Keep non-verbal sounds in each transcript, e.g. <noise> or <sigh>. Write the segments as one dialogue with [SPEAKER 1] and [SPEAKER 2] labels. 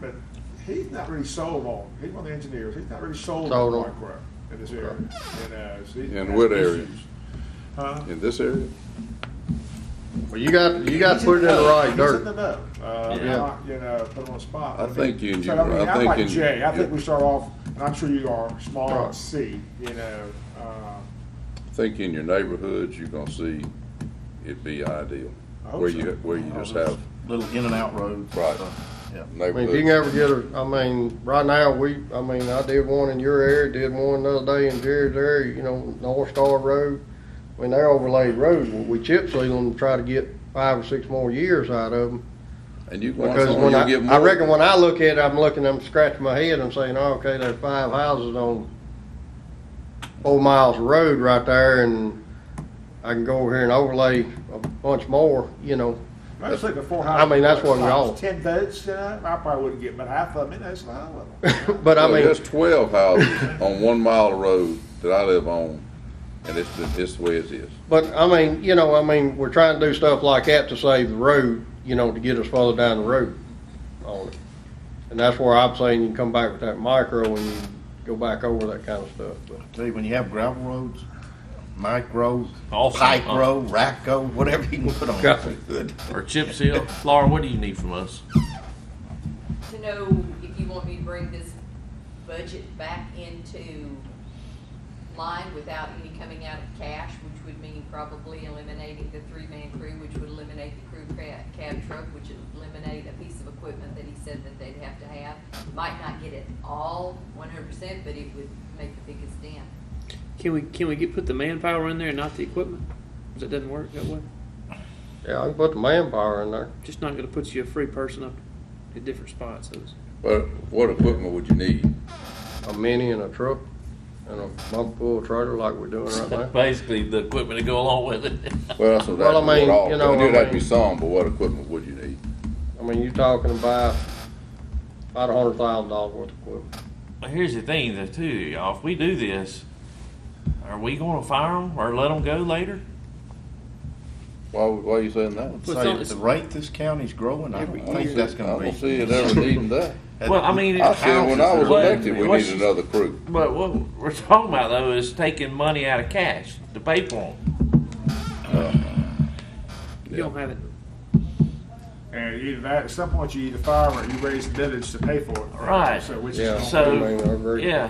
[SPEAKER 1] but he's not really sold on, he's one of the engineers, he's not really sold on
[SPEAKER 2] Sold on.
[SPEAKER 1] micro in this area. And, uh, so he's
[SPEAKER 3] In
[SPEAKER 1] got
[SPEAKER 3] what
[SPEAKER 1] issues.
[SPEAKER 3] area?
[SPEAKER 1] Huh?
[SPEAKER 3] in this area?
[SPEAKER 2] Well, you got, you got to put it in the right
[SPEAKER 1] He's in
[SPEAKER 2] dirt.
[SPEAKER 1] the know. Uh,
[SPEAKER 2] Yeah.
[SPEAKER 1] not, you know, put him on the spot.
[SPEAKER 3] I think you-
[SPEAKER 1] So, I
[SPEAKER 3] you-
[SPEAKER 1] mean,
[SPEAKER 3] I
[SPEAKER 1] I'm
[SPEAKER 3] think
[SPEAKER 1] like
[SPEAKER 3] in-
[SPEAKER 1] Jay, I think
[SPEAKER 3] yeah.
[SPEAKER 1] we start off, and I'm sure you are, small
[SPEAKER 2] Right.
[SPEAKER 1] C, you know, uh,
[SPEAKER 3] I think in your neighborhoods, you're gonna see it be ideal,
[SPEAKER 1] I hope
[SPEAKER 3] where
[SPEAKER 1] so.
[SPEAKER 3] you, where you just have
[SPEAKER 4] Little in and out roads.
[SPEAKER 3] Right.
[SPEAKER 4] So, Yeah.
[SPEAKER 2] I mean, if you
[SPEAKER 3] neighborhoods.
[SPEAKER 2] can ever get a, I mean, right now, we, I mean, I did one in your area, did one the other day in Jared's area, you know, North Star Road. I mean, they're overlaid roads, we chip seal them and try to get five or six more years out of them.
[SPEAKER 3] And you, once
[SPEAKER 2] Because when
[SPEAKER 3] you
[SPEAKER 2] I,
[SPEAKER 3] get
[SPEAKER 2] I
[SPEAKER 3] more.
[SPEAKER 2] reckon when I look at it, I'm looking, I'm scratching my head, I'm saying, oh, okay, there's five houses on four miles of road right there, and I can go over here and overlay a bunch more, you know. <laughs>
[SPEAKER 1] I just think the four
[SPEAKER 2] I
[SPEAKER 1] houses.
[SPEAKER 2] mean, that's what we
[SPEAKER 1] like
[SPEAKER 2] all-
[SPEAKER 1] Ten votes, you know, I probably wouldn't get but half of them, that's not level.
[SPEAKER 2] <laughs> But I
[SPEAKER 3] Well,
[SPEAKER 2] mean,
[SPEAKER 3] There's twelve houses on one mile of road that I live on, and it's, the- it's the way it is.
[SPEAKER 2] But I mean, you know, I mean, we're trying to do stuff like that to save the road, you know, to get us further down the road on it. And that's where I'm saying you can come back with that micro and you go back over that kind of stuff. But
[SPEAKER 4] Tell you, when you have gravel roads, micro,
[SPEAKER 5] Awesome.
[SPEAKER 4] micro, racco, whatever you can put on
[SPEAKER 2] Yeah.
[SPEAKER 4] it, good.
[SPEAKER 5] Or chip seal. Laura, what do you need from us?
[SPEAKER 6] to know if you want me to bring this budget back into line without any coming out of cash, which would mean probably eliminating the three-man crew, which would eliminate the crew cab, cab truck, which would eliminate a piece of equipment that he said that they'd have to have. Might not get it all one hundred percent, but it would make the biggest dent.
[SPEAKER 7] Can we can we get put the manpower in there and not the equipment? Because it doesn't work that way.
[SPEAKER 2] yeah, I can put the manpower in there.
[SPEAKER 7] Just not going to put you a free person up at different spots. So it's-
[SPEAKER 3] But what equipment would you need?
[SPEAKER 2] A mini and a truck and a bump pull trailer like we're doing right now.
[SPEAKER 5] <laughs> Basically, the equipment to go along with <laughs> it.
[SPEAKER 3] Well, that's what, that's
[SPEAKER 2] Well, I
[SPEAKER 3] what
[SPEAKER 2] mean,
[SPEAKER 3] all,
[SPEAKER 2] you
[SPEAKER 3] I
[SPEAKER 2] know,
[SPEAKER 3] knew
[SPEAKER 2] I
[SPEAKER 3] that'd be
[SPEAKER 2] mean-
[SPEAKER 3] some, but what equipment would you need?
[SPEAKER 2] I mean, you're talking about about a hundred thousand dollars worth of equipment.
[SPEAKER 5] But here's the thing, though, too, y'all. If we do this, are we going to fire them or let them go later?
[SPEAKER 3] Why, would- why are you saying that?
[SPEAKER 7] Well,
[SPEAKER 4] So
[SPEAKER 7] it's not-
[SPEAKER 4] at the rate this county's growing, I
[SPEAKER 7] Every
[SPEAKER 4] don't
[SPEAKER 3] I
[SPEAKER 4] think
[SPEAKER 3] don't
[SPEAKER 4] that's
[SPEAKER 3] see-
[SPEAKER 4] gonna
[SPEAKER 3] I
[SPEAKER 4] be.
[SPEAKER 3] don't see it
[SPEAKER 4] <laughs>
[SPEAKER 3] ever needing that.
[SPEAKER 5] Well, I mean,
[SPEAKER 3] I said, when I was
[SPEAKER 5] Well,
[SPEAKER 3] elected, we
[SPEAKER 5] what's-
[SPEAKER 3] needed another crew.
[SPEAKER 5] But what we're talking about, though, is taking money out of cash to pay for them.
[SPEAKER 7] You don't have it.
[SPEAKER 1] And either that, at some point, you either fire 'em or you raise the village to pay for it.
[SPEAKER 5] Right.
[SPEAKER 1] So which
[SPEAKER 2] Yeah,
[SPEAKER 1] is,
[SPEAKER 5] So,
[SPEAKER 2] I mean, I agree.
[SPEAKER 5] Yeah.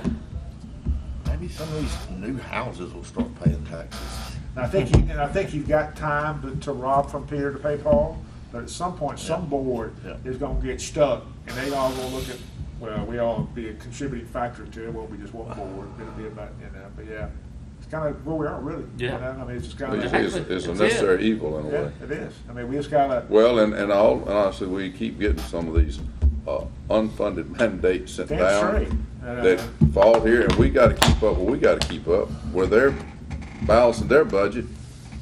[SPEAKER 4] Maybe some of these new houses will start paying taxes.
[SPEAKER 1] and I think, you- and I think you've got time to, to rob from Peter to pay Paul, but at some point, some board
[SPEAKER 4] Yeah.
[SPEAKER 1] is gonna get stuck, and they all gonna look at, well, we all be a contributing factor to it, well, we just
[SPEAKER 4] Uh-huh.
[SPEAKER 1] one board, it'll be about, you know, but yeah. It's kinda where we are, really. you
[SPEAKER 5] Yeah.
[SPEAKER 1] know, I mean, it's just
[SPEAKER 3] It's-
[SPEAKER 1] kinda,
[SPEAKER 3] It's, it's a
[SPEAKER 5] That's it.
[SPEAKER 3] necessary evil in a
[SPEAKER 1] yeah,
[SPEAKER 3] way.
[SPEAKER 1] it is, I mean, we just gotta,
[SPEAKER 3] Well, and, and all, and honestly, we keep getting some of these, uh, unfunded <laughs> mandates sent
[SPEAKER 1] that's right.
[SPEAKER 3] down
[SPEAKER 1] Uh,
[SPEAKER 3] that fall here, and we gotta keep up, what we gotta keep up, where they're balancing their budget.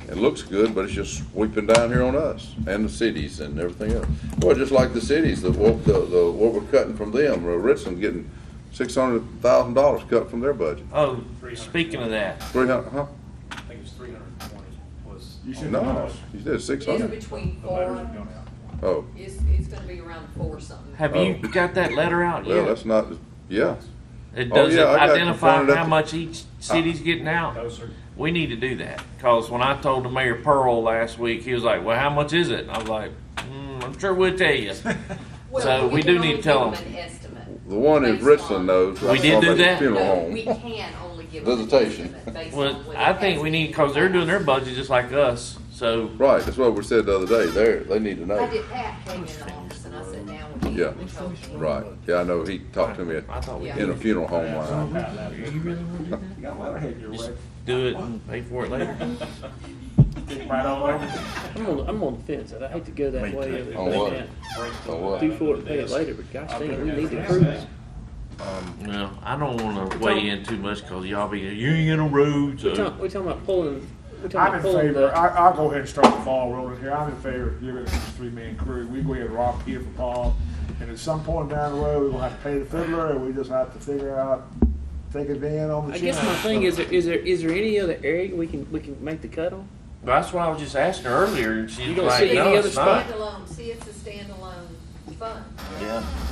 [SPEAKER 3] It looks good, but it's just sweeping down here on us and the cities and everything else. Well, just like the cities, the, what, the, the, what we're cutting from them, uh, Richland getting six hundred thousand dollars cut from their budget.
[SPEAKER 5] Oh, speaking of that,
[SPEAKER 3] Three hundred, huh?
[SPEAKER 8] I think it was three hundred and twenty was.
[SPEAKER 1] You should
[SPEAKER 3] No, you said six
[SPEAKER 6] It's
[SPEAKER 3] hundred.
[SPEAKER 6] between
[SPEAKER 8] The letters have
[SPEAKER 6] four,
[SPEAKER 8] gone out.
[SPEAKER 3] Oh,
[SPEAKER 6] it's, it's gonna be around four something.
[SPEAKER 5] have
[SPEAKER 3] Oh.
[SPEAKER 5] you got that letter out
[SPEAKER 3] well,
[SPEAKER 5] yet?
[SPEAKER 3] that's not, yeah.
[SPEAKER 5] It
[SPEAKER 3] Oh,
[SPEAKER 5] doesn't
[SPEAKER 3] yeah, I got
[SPEAKER 5] identify
[SPEAKER 3] confronted at
[SPEAKER 5] how
[SPEAKER 3] the-
[SPEAKER 5] much each city's getting out.
[SPEAKER 8] No, sir.
[SPEAKER 5] We need to do that, cause when I told the mayor Pearl last week, he was like, well, how much is it? And I was like, mm, I'm sure we'll tell you.
[SPEAKER 6] Well,
[SPEAKER 5] So
[SPEAKER 6] you
[SPEAKER 5] we
[SPEAKER 6] can
[SPEAKER 5] do need
[SPEAKER 6] only
[SPEAKER 5] to tell
[SPEAKER 6] give
[SPEAKER 5] them.
[SPEAKER 6] An estimate.
[SPEAKER 3] The one in
[SPEAKER 6] Based on-
[SPEAKER 3] Richland knows.
[SPEAKER 5] We did do that?
[SPEAKER 3] Funeral
[SPEAKER 6] No,
[SPEAKER 3] home.
[SPEAKER 6] We can only give them an
[SPEAKER 3] Visitation.
[SPEAKER 6] estimate based on
[SPEAKER 5] Well,
[SPEAKER 6] what
[SPEAKER 5] I
[SPEAKER 6] it
[SPEAKER 5] think
[SPEAKER 6] has
[SPEAKER 5] we
[SPEAKER 6] been
[SPEAKER 5] need,
[SPEAKER 6] in
[SPEAKER 5] cause they're
[SPEAKER 6] the
[SPEAKER 5] doing their
[SPEAKER 6] past.
[SPEAKER 5] budget just like us, so
[SPEAKER 3] Right, that's what we said the other day, they're, they need to
[SPEAKER 6] I
[SPEAKER 3] know.
[SPEAKER 6] did, Pat came in the office and I sat down with him.
[SPEAKER 3] Yeah.
[SPEAKER 6] and told him.
[SPEAKER 3] Right, yeah, I know, he talked to me
[SPEAKER 5] I
[SPEAKER 3] at-
[SPEAKER 5] thought we
[SPEAKER 6] Yeah.
[SPEAKER 3] in a funeral home uh, one night.
[SPEAKER 1] You got a letterhead your way.
[SPEAKER 5] do it and pay for it
[SPEAKER 7] <laughs>
[SPEAKER 5] later.
[SPEAKER 1] Right on
[SPEAKER 8] <laughs>
[SPEAKER 1] over.
[SPEAKER 7] I'm on, I'm on the fence. I hate to go that
[SPEAKER 4] Me
[SPEAKER 7] way.
[SPEAKER 4] too.
[SPEAKER 7] of
[SPEAKER 3] On what?
[SPEAKER 7] doing
[SPEAKER 8] Break the
[SPEAKER 3] So what?
[SPEAKER 7] that. Do for it, pay it later. But gosh dang, we need the
[SPEAKER 8] Yeah.
[SPEAKER 7] crews.
[SPEAKER 5] No, I don't wanna weigh in too much, cause y'all be, you ain't in uh, a road,
[SPEAKER 7] We're
[SPEAKER 5] so.
[SPEAKER 7] talking, we're talking about pulling. We're talking
[SPEAKER 1] I'm
[SPEAKER 7] about
[SPEAKER 1] in
[SPEAKER 7] pulling
[SPEAKER 1] favor,
[SPEAKER 7] the.
[SPEAKER 1] I, I'll go ahead and start the ball rolling here, I'm in favor of giving it to this three-man crew, we go ahead and rock here for Paul, and at some point down the road, we're gonna have to pay the fiddler, and we just have to figure out, take a van on the
[SPEAKER 7] I
[SPEAKER 1] chin.
[SPEAKER 7] guess my thing is, there, is there is there any other area we can we can make the cut on?
[SPEAKER 5] That's why I was just asking her earlier, and she's
[SPEAKER 7] You don't
[SPEAKER 5] like,
[SPEAKER 7] see any
[SPEAKER 5] no,
[SPEAKER 7] other
[SPEAKER 5] it's not.
[SPEAKER 6] Standalone, see, it's a standalone fund.
[SPEAKER 4] Yeah.